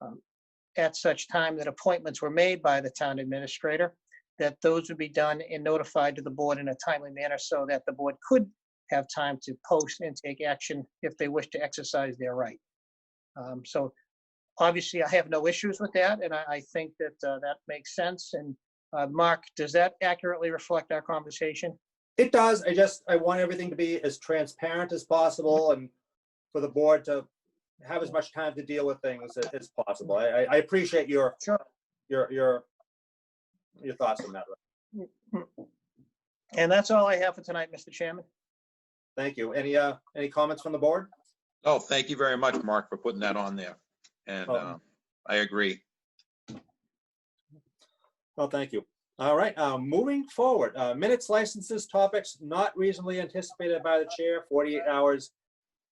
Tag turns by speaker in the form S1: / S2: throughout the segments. S1: um, at such time that appointments were made by the town administrator, that those would be done and notified to the board in a timely manner so that the board could have time to post and take action if they wish to exercise their right. Um, So obviously, I have no issues with that, and I, I think that uh, that makes sense. And uh, Mark, does that accurately reflect our conversation?
S2: It does. I just, I want everything to be as transparent as possible and for the board to have as much time to deal with things as, as possible. I, I- I appreciate your,
S1: Sure.
S2: your, your, your thoughts on that.
S1: And that's all I have for tonight, Mr. Chairman.
S2: Thank you. Any, uh, any comments from the board?
S3: Oh, thank you very much, Mark, for putting that on there. And uh,
S2: Problem.
S3: I agree.
S2: Well, thank you. All right, uh, moving forward, uh, minutes, licenses, topics not reasonably anticipated by the chair, 48 hours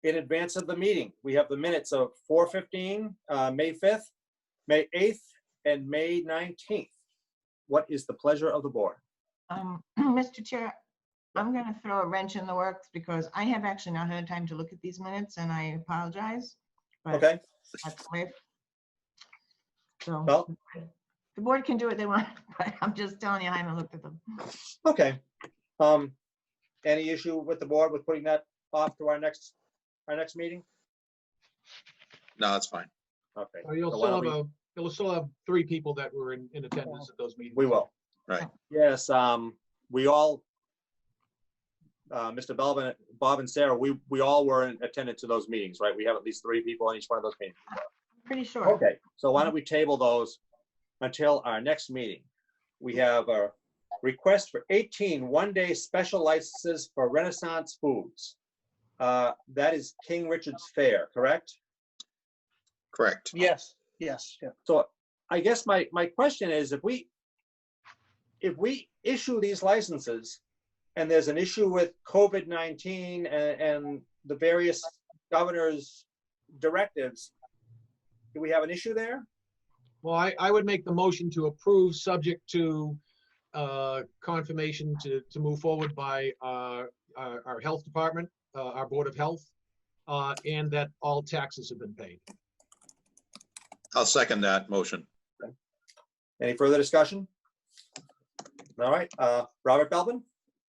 S2: in advance of the meeting. We have the minutes of 4:15, uh, May 5th, May 8th, and May 19th. What is the pleasure of the board?
S4: Um, Mr. Chair, I'm going to throw a wrench in the works because I have actually not had time to look at these minutes and I apologize. but
S2: Okay,
S4: that's the way- So
S2: well,
S4: the board can do what they want, but I'm just telling you, I haven't looked at them.
S2: okay. Um, Any issue with the board with putting that off to our next, our next meeting?
S3: No, that's fine.
S2: Okay,
S5: Well, You'll
S2: So why
S5: still
S2: don't
S5: have a, you'll still have three people that were in, in attendance at those meetings.
S2: we will.
S3: Right.
S2: Yes, um, we all, uh, Mr. Belvin, Bob and Sarah, we, we all were in attendance to those meetings, right? We have at least three people in each one of those meetings.
S4: Pretty sure.
S2: Okay, so why don't we table those until our next meeting? We have a request for 18 one-day special licenses for Renaissance Foods. Uh, That is King Richard's Fair, correct?
S3: Correct.
S1: Yes, yes, yeah.
S2: So I guess my, my question is if we, if we issue these licenses and there's an issue with COVID-19 and, and the various governor's directives, do we have an issue there?
S5: Well, I, I would make the motion to approve, subject to uh, confirmation to, to move forward by uh, our, our health department, uh, our Board of Health, uh, and that all taxes have been paid.
S3: I'll second that motion.
S2: Any further discussion? All right, uh, Robert Belvin,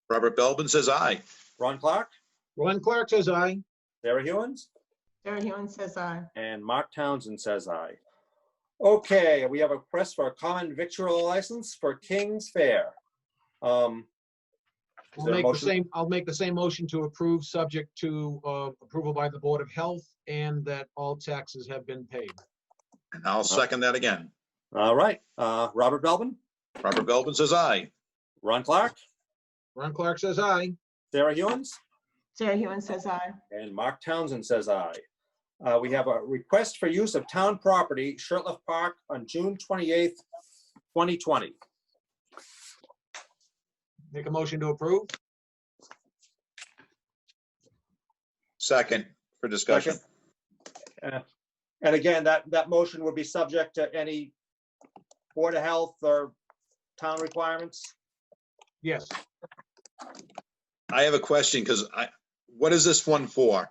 S3: Robert Belvin says aye.
S2: Ron Clark,
S5: Ron Clark says aye.
S2: Sarah Hewens,
S4: Sarah Hewen says aye.
S2: and Mark Townsend says aye. Okay, we have a request for a common victual license for King's Fair. Um, Is
S5: I'll
S2: there a
S5: make the
S2: motion?
S5: same, I'll make the same motion to approve, subject to uh, approval by the Board of Health, and that all taxes have been paid.
S3: And I'll second that again.
S2: All right, uh, Robert Belvin,
S3: Robert Belvin says aye.
S2: Ron Clark,
S5: Ron Clark says aye.
S2: Sarah Hewens,
S4: Sarah Hewen says aye.
S2: and Mark Townsend says aye. Uh, we have a request for use of town property, Shirtliff Park, on June twenty-eighth, twenty twenty.
S5: Make a motion to approve.
S3: Second for discussion.
S2: Uh, And again, that, that motion would be subject to any Board of Health or town requirements.
S5: Yes.
S3: I have a question because I, what is this one for?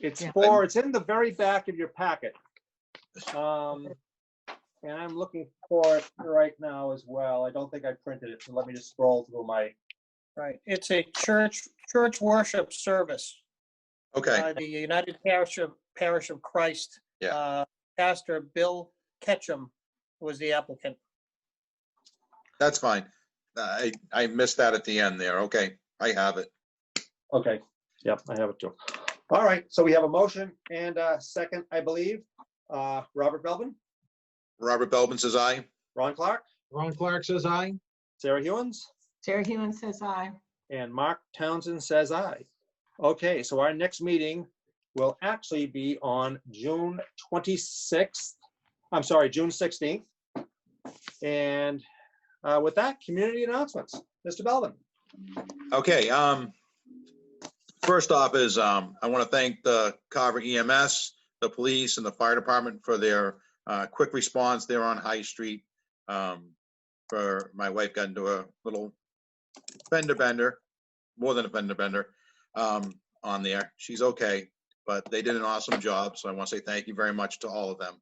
S2: It's
S4: Yeah.
S2: for, it's in the very back of your packet. Um, and I'm looking for it right now as well. I don't think I printed it, so let me just scroll through my
S1: Right, it's a church, church worship service
S3: Okay,
S1: by the United Parish of, Parish of Christ.
S3: Yeah.
S1: Uh, Pastor Bill Ketchum was the applicant.
S3: that's fine. I, I missed that at the end there. Okay, I have it.
S2: Okay, yep, I have it too. All right, so we have a motion and a second, I believe. Uh, Robert Belvin,
S3: Robert Belvin says aye.
S2: Ron Clark,
S5: Ron Clark says aye.
S2: Sarah Hewens,
S4: Sarah Hewen says aye.
S2: and Mark Townsend says aye. Okay, so our next meeting will actually be on June twenty-sixth, I'm sorry, June sixteenth. And uh, with that, community announcements, Mr. Belvin.
S3: Okay, um, first off is, um, I want to thank the Carver EMS, the police and the fire department for their, uh, quick response there on High Street. Um, for, my wife got into a little fender bender, more than a fender bender, um, on there. She's okay, but they did an awesome job, so I want to say thank you very much to all of them.